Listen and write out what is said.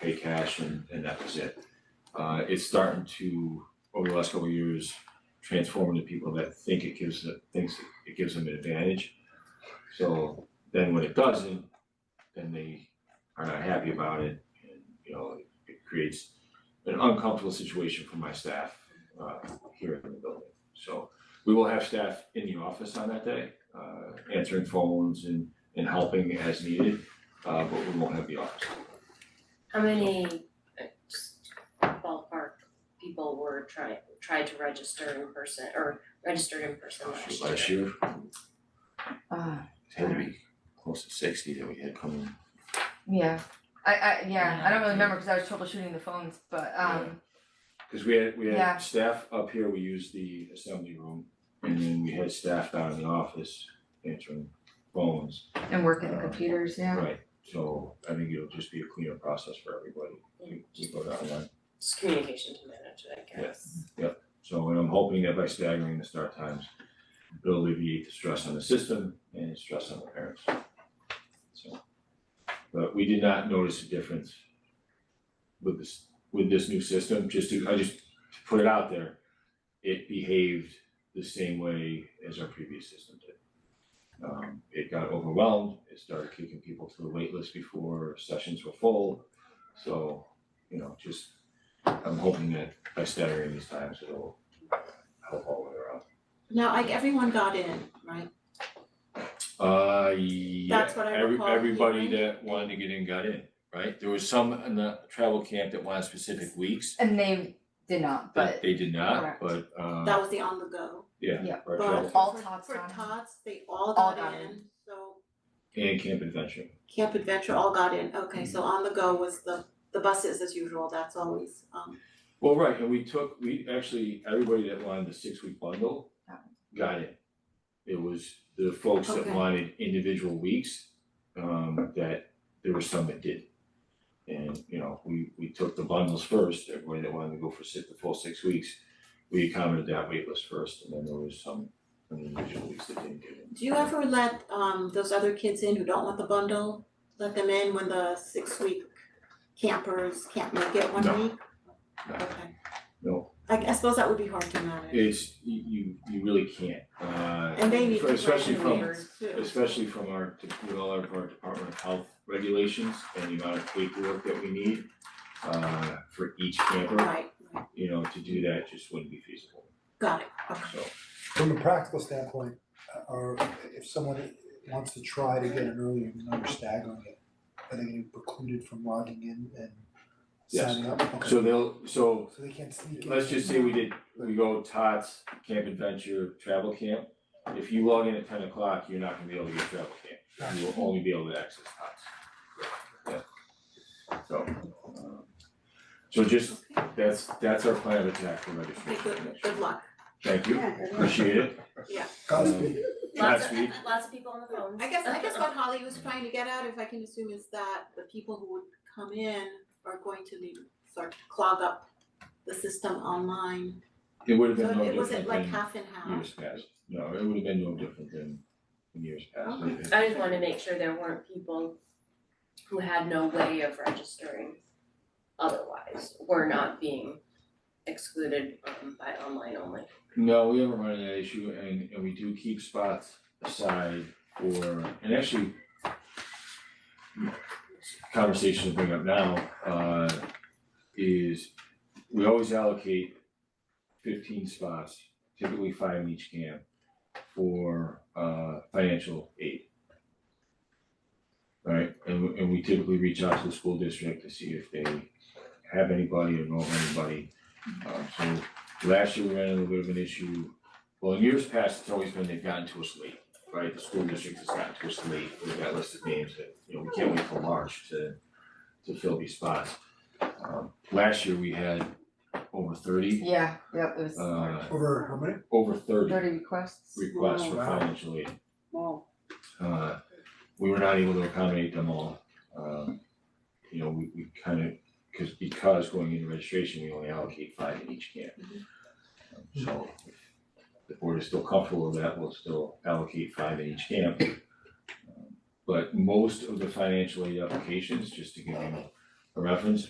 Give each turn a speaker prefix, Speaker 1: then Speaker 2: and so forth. Speaker 1: pay cash and and that was it. Uh it's starting to, over the last couple of years, transform into people that think it gives the, thinks it gives them an advantage. So then when it doesn't, then they are not happy about it and, you know, it creates an uncomfortable situation for my staff uh here in the building. So we will have staff in the office on that day, uh answering phones and and helping as needed, uh but we won't have the office.
Speaker 2: How many, uh, just ballpark people were trying, tried to register in person or registered in person last year?
Speaker 1: Last year,
Speaker 3: Uh,
Speaker 1: it had to be close to sixty that we had coming.
Speaker 3: yeah, I, I, yeah, I
Speaker 1: Yeah.
Speaker 3: don't really remember because I was troubleshooting the phones, but, um,
Speaker 1: Cause we had, we
Speaker 3: Yeah.
Speaker 1: had staff up here, we used the assembly room, and then we had staff down in the office answering phones.
Speaker 3: and working the computers, yeah.
Speaker 1: Right, so I think it'll just be a cleaner process for everybody, we we go down the line.
Speaker 2: Just communication to manage, I guess.
Speaker 1: So, and I'm hoping that by staggering the start times, it'll alleviate the stress on the system and the stress on the parents. So, but we did not notice a difference with this, with this new system, just to, I just to put it out there. It behaved the same way as our previous system did. Um, it got overwhelmed, it started kicking people to the waitlist before sessions were full. So, you know, just, I'm hoping that by staggering these times, it'll help all the way around.
Speaker 4: No, like everyone got in, right?
Speaker 1: Uh, yeah.
Speaker 4: That's what I
Speaker 1: every-
Speaker 4: recall
Speaker 1: Everybody
Speaker 4: hearing.
Speaker 1: that wanted to get in got in, right? There was some in the travel camp that wanted specific weeks,
Speaker 3: And they did not,
Speaker 1: that
Speaker 3: but
Speaker 1: they did not,
Speaker 3: Correct.
Speaker 1: but, uh,
Speaker 4: That was the on the go.
Speaker 1: yeah,
Speaker 3: yeah.
Speaker 1: our
Speaker 4: But
Speaker 1: travel,
Speaker 3: All
Speaker 4: for-
Speaker 3: tots
Speaker 4: For
Speaker 3: got in.
Speaker 4: tots, they all
Speaker 3: All
Speaker 4: got
Speaker 3: got
Speaker 4: in, so
Speaker 1: and camp adventure.
Speaker 4: Camp Adventure all got in, okay, so on the go was the the buses as usual, that's always um
Speaker 1: Well, right, and we took, we actually, everybody that wanted the six-week bundle
Speaker 3: Got
Speaker 1: got it. It was the folks that
Speaker 4: Okay.
Speaker 1: wanted individual weeks, um, that there were some that didn't. And, you know, we, we took the bundles first, everybody that wanted to go for six, the full six weeks, we accommodated that waitlist first, and then there was some, some individual weeks that didn't get it.
Speaker 4: do you ever let um those other kids in who don't want the bundle, let them in when the six week campers can't make it one
Speaker 1: No.
Speaker 4: week?
Speaker 1: No.
Speaker 4: Okay,
Speaker 1: No,
Speaker 4: I I suppose that would be hard to manage.
Speaker 1: It's, you, you you really can't, uh,
Speaker 4: And they need to
Speaker 1: especially
Speaker 4: graduate
Speaker 1: from,
Speaker 4: too.
Speaker 1: especially from our, with all of our Department of Health regulations and the amount of paperwork that we need uh, for each camper,
Speaker 4: Right, right,
Speaker 1: you know, to do that just wouldn't be feasible,
Speaker 4: got it, okay.
Speaker 1: so.
Speaker 5: From a practical standpoint, uh, or if someone wants to try to get in earlier, even though you're staggering it, are they gonna be precluded from logging in and
Speaker 1: Yes.
Speaker 5: signing up? Okay.
Speaker 1: So they'll, so
Speaker 5: So they can't sneak in?
Speaker 1: let's just say we did, we go Tots, Camp Adventure, Travel Camp. If you log in at ten o'clock, you're not gonna be able to get Travel Camp, you will only be able to access Tots. Yeah. So, um, so just, that's, that's our plan of attack for
Speaker 4: Okay,
Speaker 1: registration.
Speaker 4: good, good luck.
Speaker 1: Thank you, appreciate it.
Speaker 5: Godspeed.
Speaker 2: Lots
Speaker 1: Last
Speaker 2: of,
Speaker 1: week,
Speaker 2: lots of people on the phone.
Speaker 4: I guess, I guess what Holly was trying to get at, if I can assume, is that the people who would come in are going to need, sort of clog up the system online.
Speaker 1: it would have
Speaker 4: So
Speaker 1: been no
Speaker 4: it
Speaker 1: different
Speaker 4: wasn't like
Speaker 1: than
Speaker 4: half and half.
Speaker 1: years past, no, it would have been no different than in years past.
Speaker 4: Okay.
Speaker 1: It-
Speaker 2: I just wanted to make sure there weren't people who had no way of registering otherwise, were not being excluded um by online only.
Speaker 1: No, we haven't run into that issue and and we do keep spots aside for, and actually conversation to bring up now uh is we always allocate fifteen spots, typically five in each camp for uh financial aid. Right, and we- and we typically reach out to the school district to see if they have anybody or know of anybody. Um so Last year, we ran into a bit of an issue, well, in years past, it's always been they've gotten to us late, right? The school district has gotten to us late, we've got listed names that, you know, we can't wait till March to to fill these spots. Um last year, we had over thirty,
Speaker 3: Yeah, yep, it was
Speaker 1: uh,
Speaker 5: Over how many?
Speaker 1: over thirty
Speaker 3: thirty requests.
Speaker 1: requests for
Speaker 5: Wow.
Speaker 1: financial aid. Uh, we were not able to accommodate them all, um, you know, we we kind of, cause because going into registration, we only allocate five in each camp. Um, So if the board is still comfortable with that, we'll still allocate five in each camp. Um, But most of the financial aid applications, just to give you a reference,